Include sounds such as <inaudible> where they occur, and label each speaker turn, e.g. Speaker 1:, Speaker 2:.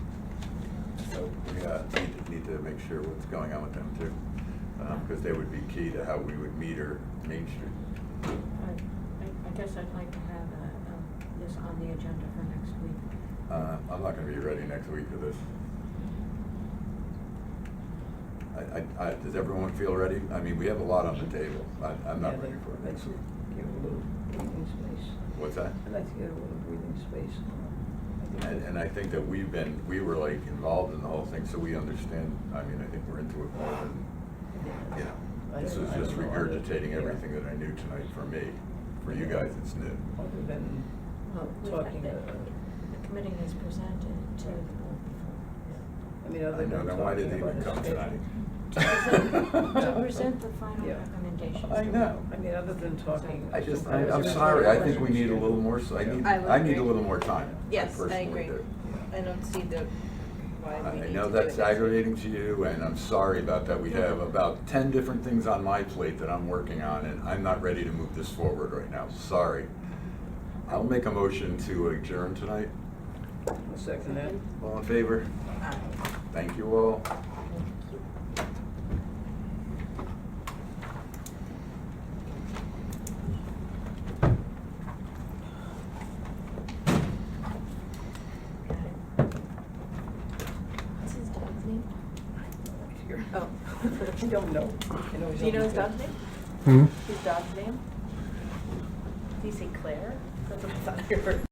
Speaker 1: so we uh, need need to make sure what's going on with them too. Because they would be key to how we would meter Main Street.
Speaker 2: I, I- I guess I'd like to have, uh, um, this on the agenda for next week.
Speaker 1: Uh, I'm not gonna be ready next week for this. I, I, I, does everyone feel ready? I mean, we have a lot on the table. I, I'm
Speaker 3: Yeah,
Speaker 1: not
Speaker 3: but
Speaker 1: ready for it
Speaker 3: I'd
Speaker 1: next
Speaker 3: like
Speaker 1: week.
Speaker 3: to Give a little breathing space.
Speaker 1: What's that?
Speaker 3: I'd like to get a little breathing space. um, I think
Speaker 1: And,
Speaker 3: that-
Speaker 1: and I think that we've been, we were like involved in the whole thing, so we understand, I mean, I think we're into it more than, you know.
Speaker 3: I
Speaker 1: This
Speaker 3: don't-
Speaker 1: is
Speaker 3: I
Speaker 1: just
Speaker 3: don't know other-
Speaker 1: regurgitating
Speaker 3: yeah.
Speaker 1: everything that I knew tonight for me. For you guys, it's new.
Speaker 3: Other than
Speaker 2: Well, we've had
Speaker 3: talking,
Speaker 2: the-
Speaker 3: uh,
Speaker 2: The committee has presented to the board before.
Speaker 3: I mean,
Speaker 1: I
Speaker 3: other
Speaker 1: know,
Speaker 3: than
Speaker 1: then why
Speaker 3: talking
Speaker 1: did they
Speaker 3: about
Speaker 1: even come
Speaker 3: the schedule.
Speaker 1: tonight?
Speaker 2: To present the final
Speaker 3: Yeah.
Speaker 2: recommendations.
Speaker 1: I know.
Speaker 3: I mean, other than talking.
Speaker 1: I just, I- I'm sorry, I think we need a little more, s- I need,
Speaker 4: I would
Speaker 1: I need a
Speaker 4: agree.
Speaker 1: little more time.
Speaker 4: Yes, I
Speaker 1: personally
Speaker 4: agree.
Speaker 1: do.
Speaker 4: I don't see the, why we
Speaker 1: I
Speaker 4: need to do it.
Speaker 1: know that's
Speaker 4: next week.
Speaker 1: aggravating to you, and I'm sorry about that. We have about ten different things on my plate that I'm working on, and I'm not ready to move this forward right now. Sorry. I'll make a motion to adjourn tonight.
Speaker 3: A second
Speaker 4: <laughs>
Speaker 3: that.
Speaker 1: All in favor?
Speaker 4: Ah.
Speaker 1: Thank you all.
Speaker 4: What's his dog's name? Oh.
Speaker 3: I don't know. I know Oh, he's
Speaker 4: Do you know
Speaker 3: on
Speaker 4: his
Speaker 3: the-
Speaker 4: dog's name?
Speaker 5: Hmm?
Speaker 4: His dog's name? Do you say Claire? That's what I thought I heard.